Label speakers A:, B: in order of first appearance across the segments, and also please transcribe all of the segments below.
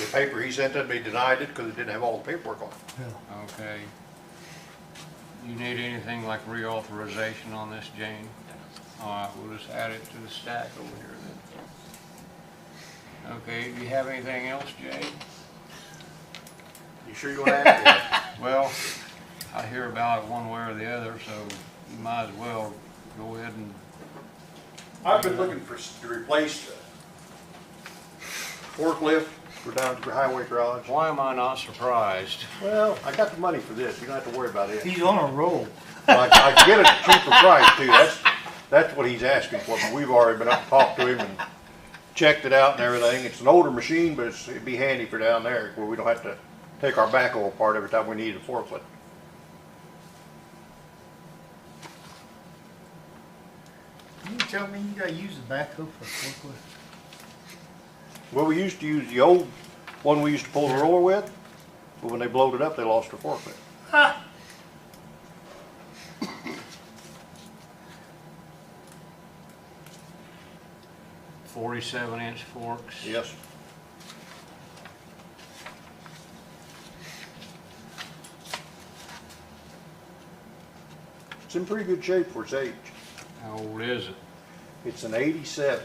A: the paper he sent to me denied it because it didn't have all the paperwork on it.
B: Okay. You need anything like reauthorization on this, Jane? All right, we'll just add it to the stack over here then. Okay, do you have anything else, Jane?
A: You sure you want to add that?
B: Well, I hear about it one way or the other, so you might as well go ahead and,
A: I've been looking for, s- to replace the forklift for down at the highway garage.
B: why am I not surprised?
A: Well, I got the money for this, you don't have to worry about it.
C: He's on a roll.
A: I I can get it at a cheaper price too, that's, that's what he's asking for, but we've already been up and talked to him and checked it out and everything. It's an older machine, but it's, it'd be handy for down there where we don't have to take our backhoe apart every time we need a forklift.
C: You tell me you gotta use the backhoe for forklift?
A: Well, we used to use the old one we used to pull the roller with, but when they blowed it up, they lost their forklift.
B: Forty-seven inch forks?
A: Yes. It's in pretty good shape for its age.
B: How old is it?
A: It's an eighty-seven.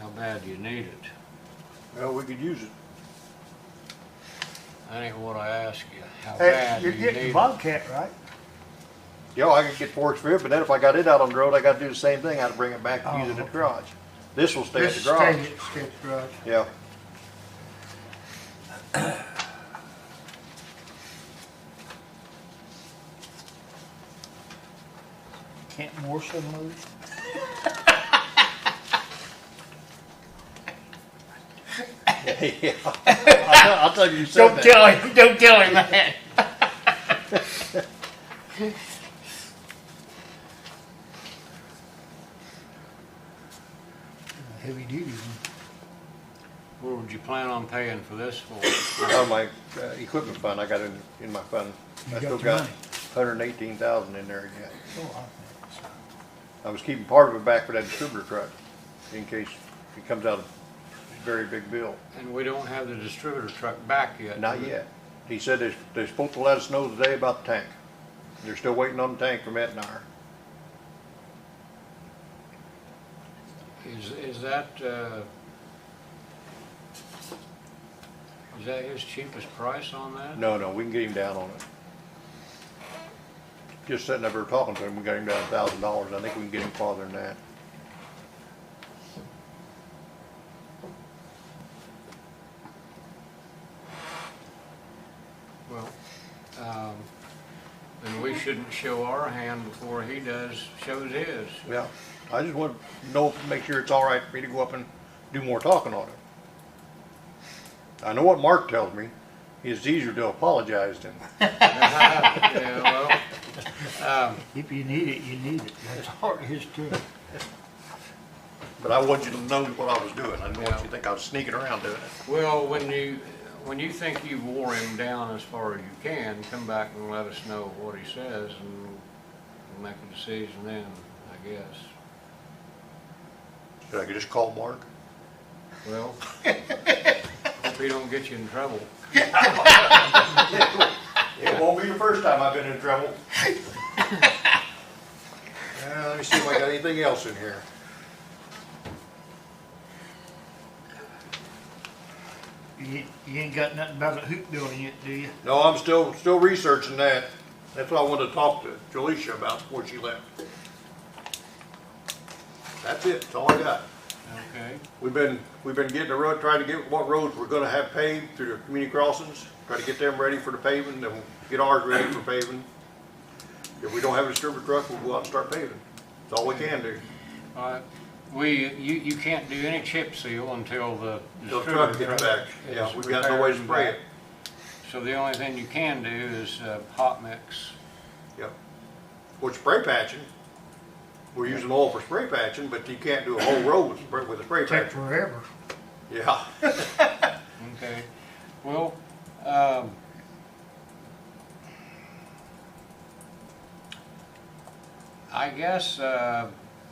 B: How bad do you need it?
A: Well, we could use it.
B: That ain't what I asked you. How
C: Hey,
B: bad do
C: you're
B: you need
C: getting the
B: it?
C: Bobcat, right?
A: Yeah, I could get forks for it, but then if I got it out on the road, I gotta do the same thing. I had to bring it back and use it at the
C: Oh.
A: garage. This will stay at the
C: Just stay
A: garage.
C: at- Stay at the garage.
A: Yeah.
C: Can't Marshall move?
A: Yeah. I'll tell- I'll tell you, you said that.
C: him, don't tell him that. Heavy duty one.
B: What would you plan on paying for this for?
A: Out of my uh, equipment fund, I got in, in my fund. I
C: You got
A: still
C: your
A: got
C: money.
A: hundred and eighteen thousand in there yet.
C: Oh,
A: I was keeping part of it back for that distributor truck in case it comes out of a very big bill.
B: And we don't have the distributor truck back yet.
A: Not
B: do we?
A: yet. He said they're, they're supposed to let us know today about the tank. They're still waiting on the tank from Etnar.
B: Is, is that, uh, is that his cheapest price on that?
A: No, no, we can get him down on it. Just sitting up here talking to him, we got him down a thousand dollars. I think we can get him farther than that.
B: Well, um, then we shouldn't show our hand before he does, shows his.
A: Yeah, I just want to know, make sure it's all right for me to go up and do more talking on it. I know what Mark tells me, it's easier to apologize than,
B: Yeah, well, um,
C: If you need it, you need it. That's hard as to it.
A: but I want you to know what I was doing. I didn't want you to think I was sneaking around doing it.
B: well, when you, when you think you wore him down as far as you can, come back and let us know what he says and we'll make a decision then, I guess.
A: Should I could just call Mark?
B: Well, hope he don't get you in trouble.
A: It won't be the first time I've been in trouble. Uh, let me see if I got anything else in here.
C: You, you ain't got nothing about a hoop building yet, do you?
A: No, I'm still, still researching that. That's what I wanted to talk to Jalisha about before she left. That's it, that's all I got.
B: Okay,
A: We've been, we've been getting the road, trying to get what roads we're gonna have paved through the community crossings, try to get them ready for the paving, then we'll get ours ready for paving. If we don't have a distributor truck, we'll go out and start paving. That's all we can do.
B: all right. We, you, you can't do any chip seal until the
A: Till the truck gets
B: distributor truck.
A: back, yeah,
B: is
A: we've got no way to
B: repaired and
A: spray it,
B: back. So the only thing you can do is uh, hot mix.
A: yeah. With spray patching, we're using oil for spray patching, but you can't do a whole road with spray- with a spray
C: Take
A: patch.
C: forever.
A: Yeah,
B: Okay, well, um, I guess, uh,